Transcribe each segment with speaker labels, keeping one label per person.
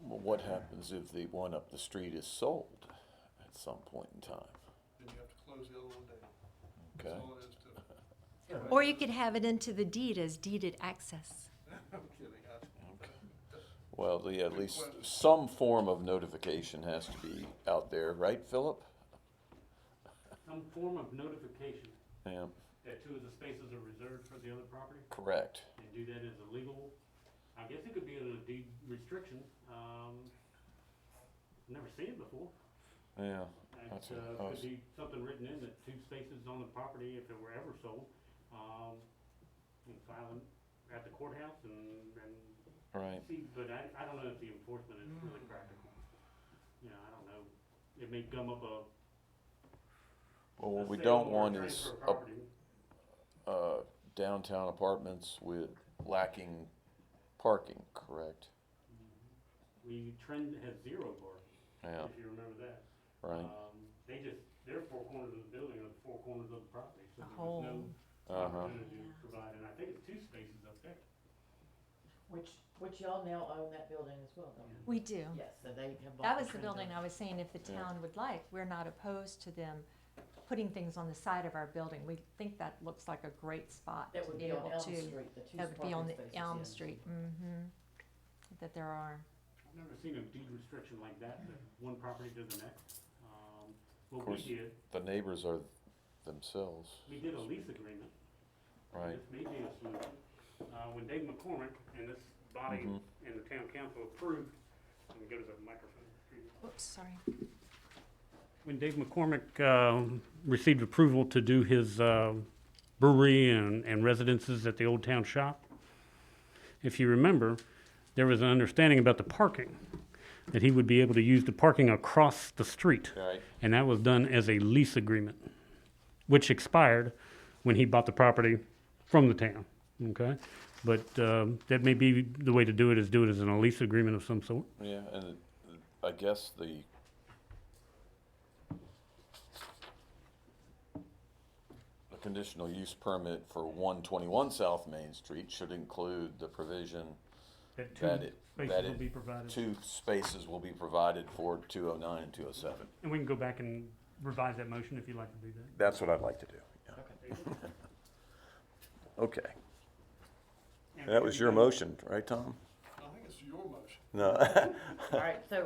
Speaker 1: what happens if the one up the street is sold at some point in time?
Speaker 2: Then you have to close the other one down. That's
Speaker 1: Okay,
Speaker 2: all it is to.
Speaker 3: Or you could have it into the deed as deeded access.
Speaker 2: I'm kidding, I,
Speaker 1: well, the, at least some form of notification has to be out there, right, Philip?
Speaker 4: Some form of notification
Speaker 1: Yeah,
Speaker 4: that two of the spaces are reserved for the other property
Speaker 1: correct.
Speaker 4: and do that as a legal, I guess it could be a deed restriction. Um, never seen it before.
Speaker 1: Yeah, That's
Speaker 4: It's,
Speaker 1: what I
Speaker 4: uh,
Speaker 1: was-
Speaker 4: could be something written in that two spaces on the property, if it were ever sold, um, and file them at the courthouse and, and
Speaker 1: right.
Speaker 4: see, but I, I don't know if the enforcement is really practical. You know, I don't know. It may gum up a.
Speaker 1: Well, what
Speaker 4: a
Speaker 1: we
Speaker 4: sale
Speaker 1: don't
Speaker 4: or a
Speaker 1: want
Speaker 4: transfer
Speaker 1: is
Speaker 4: of
Speaker 1: a-
Speaker 4: property.
Speaker 1: uh, downtown apartments with lacking parking, correct?
Speaker 4: We trend has zero bar,
Speaker 1: Yeah,
Speaker 4: if you remember that.
Speaker 1: right.
Speaker 4: Um, They just, they're four corners of the building or the four corners of the property,
Speaker 3: The
Speaker 4: so there was no
Speaker 1: Uh-huh.
Speaker 4: opportunity to provide, and I think it's two spaces up there.
Speaker 5: Which, which y'all now own that building as well, don't you?
Speaker 3: We do.
Speaker 5: Yes, so they have bought.
Speaker 3: That was the
Speaker 5: trend
Speaker 3: building I
Speaker 5: of-
Speaker 3: was saying, if the
Speaker 1: Yeah.
Speaker 3: town would like, we're not opposed to them putting things on the side of our building. We think that looks like a great spot to
Speaker 5: That would
Speaker 3: be
Speaker 5: be on
Speaker 3: able
Speaker 5: Elm
Speaker 3: to.
Speaker 5: Street, the two
Speaker 3: That would be on
Speaker 5: parking
Speaker 3: the
Speaker 5: spaces.
Speaker 3: Elm
Speaker 5: yeah.
Speaker 3: Street, mm-hmm, that there are.
Speaker 4: I've never seen a deed restriction like that, that one property to the next. Um, What we
Speaker 1: course.
Speaker 4: did,
Speaker 1: The neighbors are themselves,
Speaker 4: we did a lease agreement.
Speaker 1: right?
Speaker 4: This may be a solution. Uh, When Dave McCormick and this body
Speaker 1: Mhm.
Speaker 4: and the town council approved, let me go to the microphone.
Speaker 3: Oops, sorry.
Speaker 4: When Dave McCormick uh, received approval to do his uh, brewery and and residences at the Old Town Shop, if you remember, there was an understanding about the parking, that he would be able to use the parking across the street.
Speaker 1: Right.
Speaker 4: And that was done as a lease agreement, which expired when he bought the property from the town, okay? But um, that may be the way to do it, is do it as in a lease agreement of some sort.
Speaker 1: Yeah, and it- I guess the the conditional use permit for one twenty-one South Main Street should include the provision that it, that it,
Speaker 4: provided.
Speaker 1: two spaces will be provided for two oh nine and two oh seven.
Speaker 4: And we can go back and revise that motion if you'd like to do that.
Speaker 1: That's what I'd like to do, yeah. Okay, that was your motion, right, Tom?
Speaker 2: I think it's your motion.
Speaker 1: No.
Speaker 5: All right, so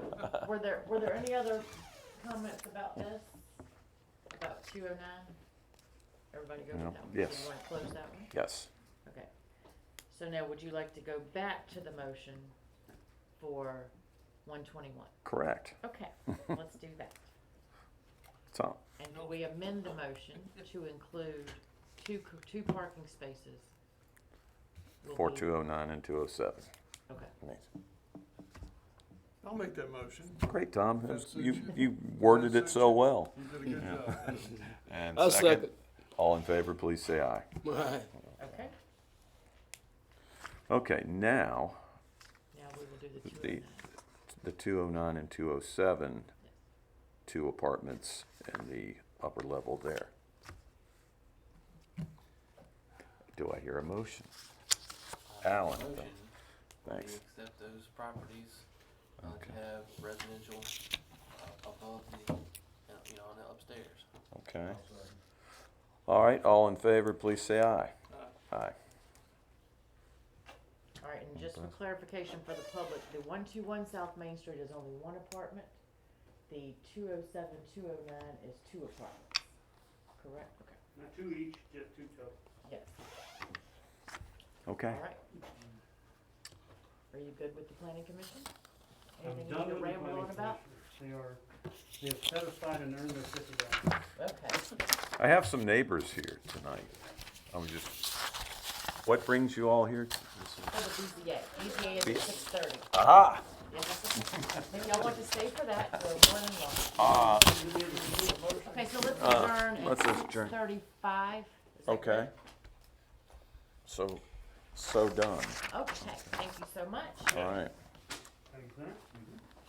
Speaker 5: were there, were there any other comments about this? About two oh nine? Everybody go with
Speaker 1: No,
Speaker 5: that one?
Speaker 1: yes.
Speaker 5: You wanna close that one?
Speaker 1: Yes.
Speaker 5: Okay. So now would you like to go back to the motion for one twenty-one?
Speaker 1: Correct.
Speaker 5: Okay, let's do that.
Speaker 1: Tom?
Speaker 5: And can we amend the motion to include two, c- two parking spaces? will
Speaker 1: For
Speaker 5: be-
Speaker 1: two oh nine and two oh seven.
Speaker 5: Okay.
Speaker 2: I'll make that motion.
Speaker 1: Great, Tom. That
Speaker 2: That
Speaker 1: was-
Speaker 2: suits
Speaker 1: You,
Speaker 2: you.
Speaker 1: you worded it so well.
Speaker 2: You did a good job.
Speaker 1: And
Speaker 6: I'll second.
Speaker 1: All in favor, please say aye.
Speaker 6: Aye.
Speaker 5: Okay,
Speaker 1: Okay, now,
Speaker 5: now we will do the two oh
Speaker 1: the,
Speaker 5: nine.
Speaker 1: the two oh nine and two oh seven, two apartments in the upper level there. Do I hear a motion? Alan,
Speaker 6: Motion
Speaker 1: thanks.
Speaker 6: to accept those properties, uh,
Speaker 1: Okay.
Speaker 6: to have residential, uh, above the, uh, you know, on the upstairs.
Speaker 1: Okay. All right, all in favor, please say aye. Aye.
Speaker 5: All right, and just for clarification for the public, the one-two-one South Main Street is only one apartment. The 207, 209 is two apartments, correct? Okay.
Speaker 4: Not two each, just two total.
Speaker 5: Yes,
Speaker 1: Okay.
Speaker 5: all right. Are you good with the planning commission?
Speaker 4: I'm
Speaker 5: Anything you
Speaker 4: done
Speaker 5: need to
Speaker 4: with the
Speaker 5: ramble
Speaker 4: planning
Speaker 5: on about?
Speaker 4: commissioners. They are, they have set aside and earned their fifty dollars.
Speaker 5: Okay,
Speaker 1: I have some neighbors here tonight. I'm just, what brings you all here?
Speaker 5: for the BZA, BZA is
Speaker 1: Yeah.
Speaker 5: at six thirty.
Speaker 1: Ah,
Speaker 5: If y'all want to stay for that, we're more than welcome.
Speaker 1: ah,
Speaker 5: Okay, so let's
Speaker 1: Uh,
Speaker 5: adjourn
Speaker 1: let's
Speaker 5: at
Speaker 1: adjourn.
Speaker 5: six thirty-five.
Speaker 1: okay. So, so done,
Speaker 5: Okay, thank you so much.
Speaker 1: all right.
Speaker 4: Thank you, sir.